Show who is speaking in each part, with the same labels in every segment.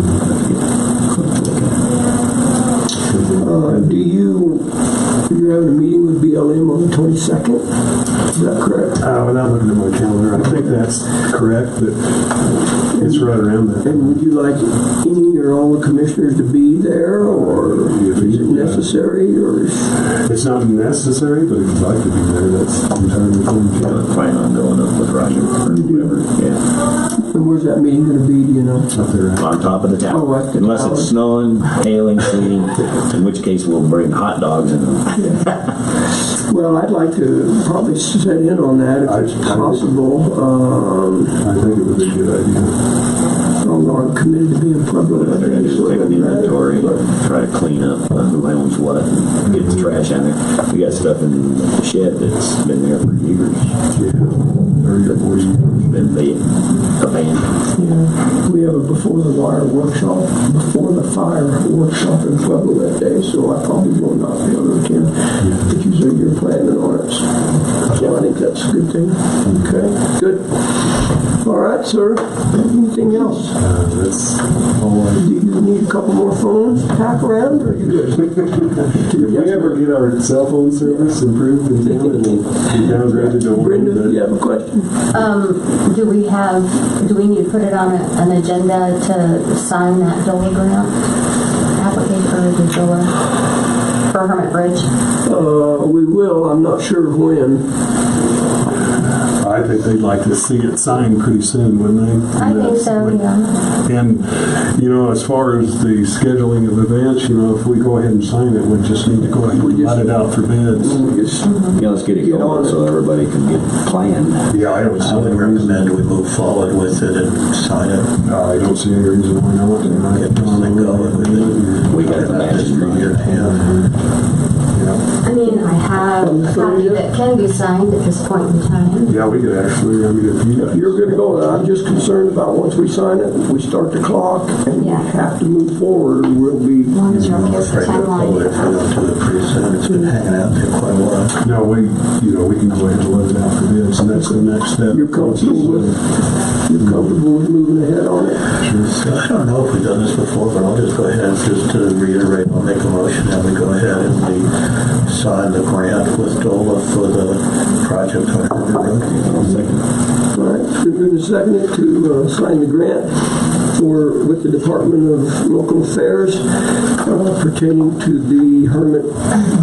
Speaker 1: Uh,
Speaker 2: Uh,
Speaker 1: 22nd? Is that correct?
Speaker 2: Uh, without looking at my calendar, I think that's correct, but it's right around that.
Speaker 1: And would you like any or all the commissioners to be there, or is it necessary, or is-
Speaker 2: It's not necessary, but if you'd like to be there, that's entirely cool.
Speaker 3: plan on going up the project or whatever. Yeah,
Speaker 1: and where's that meeting gonna be, do you know?
Speaker 2: Up there, uh,
Speaker 3: on top of the
Speaker 1: Oh,
Speaker 3: tower.
Speaker 1: right, the
Speaker 3: Unless
Speaker 1: tower.
Speaker 3: it's snowing, hailing, sleeting, in which case we'll bring hot dogs and
Speaker 1: Well, I'd like to probably set in on that
Speaker 2: I-
Speaker 1: if it's
Speaker 2: I-
Speaker 1: possible, um,
Speaker 2: I think it would be a good idea.
Speaker 1: although I'm committed to being Pueblo.
Speaker 3: they're gonna just take an inventory, try to clean up uh, who owns what, and get the trash out of there. We got stuff in the shed that's been there for years,
Speaker 2: Yeah, thirty or forty.
Speaker 3: been being abandoned.
Speaker 1: Yeah, Uh, we have a before the wire workshop, before the fire workshop in Pueblo that day, so I probably will not be able to attend. But you said you're planning on it, so I think that's a good thing. Okay, good. All right, sir, anything else?
Speaker 2: Uh, that's all I.
Speaker 1: Do you need a couple more phones to pack around, or you good?
Speaker 2: If we ever get our cell phone service improved in town, it'll be downgraded to one.
Speaker 1: Brenda,
Speaker 2: but-
Speaker 1: you have a question?
Speaker 4: Um, do we have, do we need to put it on a, an agenda to sign that DOLA grant application or the DOLA for Hermit Bridge?
Speaker 1: Uh, we will, I'm not sure when.
Speaker 2: I think they'd like to see it signed pretty soon, wouldn't they?
Speaker 4: I think so, yeah.
Speaker 2: And, you know, as far as the scheduling of events, you know, if we go ahead and sign it, we just need to go ahead and let it out for bids.
Speaker 1: We just-
Speaker 3: Yeah, let's get it
Speaker 1: Get on
Speaker 3: going
Speaker 1: it.
Speaker 3: so everybody can get planned.
Speaker 2: Yeah, I don't see
Speaker 5: I would
Speaker 2: any reason.
Speaker 5: recommend we move forward with it and sign it.
Speaker 2: No, Uh, I don't see any reason why not. you know.
Speaker 5: Get this thing going with it.
Speaker 3: We got the
Speaker 5: Not just
Speaker 3: matching
Speaker 5: for
Speaker 3: money.
Speaker 5: your hand.
Speaker 2: Yeah.
Speaker 4: I mean, I have a copy that can be signed at this point in time.
Speaker 2: Yeah, we could actually, I mean, if you guys.
Speaker 1: You're good to go. I'm just concerned about once we sign it, we start the clock and we
Speaker 4: Yeah.
Speaker 1: have to move forward or we'll
Speaker 4: As
Speaker 1: be,
Speaker 4: long as you're
Speaker 5: I'm
Speaker 4: okay with the
Speaker 5: afraid to pull it if
Speaker 4: timeline.
Speaker 5: we don't do it pretty soon. It's been hanging out there quite a while.
Speaker 2: No, we, you know, we can go ahead and let it out for bids, and that's the next step.
Speaker 1: You're comfortable with- you're comfortable with moving ahead on it.
Speaker 5: So I don't know if we've done this before, but I'll just go ahead and just to reiterate, I'll make a motion that we go ahead and we sign the grant with DOLA for the project on Herbert Road.
Speaker 1: All right, it's been moved and seconded to uh, sign the grant for, with the Department of Local Affairs uh, pertaining to the Hermit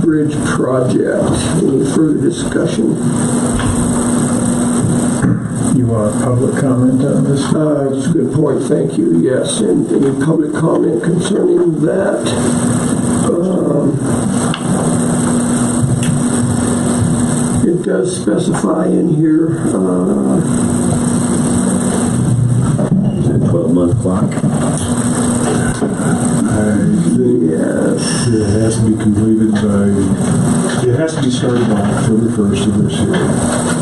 Speaker 1: Bridge project. Any further discussion?
Speaker 6: You want public comment on this?
Speaker 1: Uh, It's a good point, thank you, yes. And any public comment concerning that? Um, It does specify in here, uh,
Speaker 3: Twelve month clock.
Speaker 2: I think
Speaker 1: yes,
Speaker 2: It has to be completed by, it has to be started by October first of this year.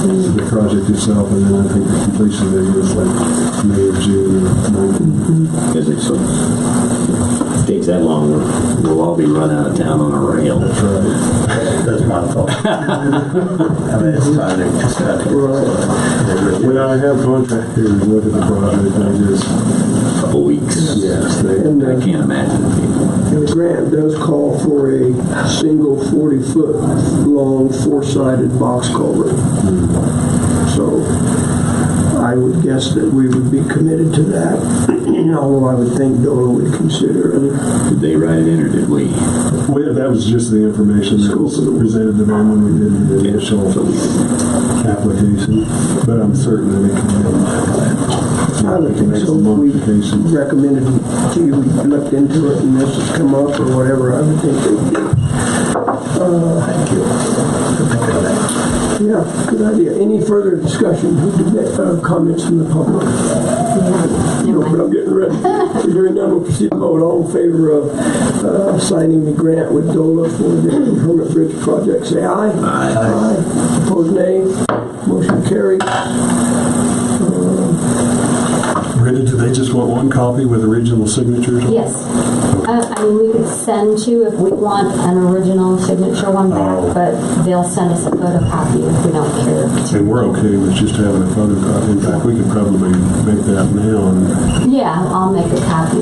Speaker 2: The project itself, and then I think the completion date is like May or June or May.
Speaker 3: Because it's so, if it takes that long, we'll- we'll all be run out of town on a rail.
Speaker 2: That's right.
Speaker 5: That's my fault. I mean, it's time to, it's time to.
Speaker 2: When I have contractors look at the project, they just,
Speaker 3: Couple weeks.
Speaker 2: yes, they,
Speaker 1: and
Speaker 3: I
Speaker 1: uh,
Speaker 3: can't imagine.
Speaker 1: and the grant does call for a single 40-foot-long four-sided box culvert. So I would guess that we would be committed to that, although I would think DOLA would consider it.
Speaker 3: Did they write it in or did we?
Speaker 2: well, that was just the information that was presented to them when we did the initial application. But I'm certain that it can be.
Speaker 1: I would think so. We
Speaker 2: Modifications.
Speaker 1: recommended to you, we looked into it and this has come up or whatever, I would think they would do.
Speaker 5: Thank you. Thank you.
Speaker 1: Yeah, good idea. Any further discussion, Who did that, uh, comments from the public? No, but I'm getting ready. Hearing none, we'll proceed to vote. All in favor of uh, signing the grant with DOLA for the Hermit Bridge project, say aye. Aye. Aye. Opposed, nay. Motion carried.
Speaker 2: Brenda, do they just want one copy with original signatures?
Speaker 4: Yes. Uh, I mean, we could send two if we want an original signature one back, but they'll send us a photocopy if we don't care.
Speaker 2: And we're okay with just having a photocopy. In fact, we could probably make that now and
Speaker 4: Yeah, I'll make a copy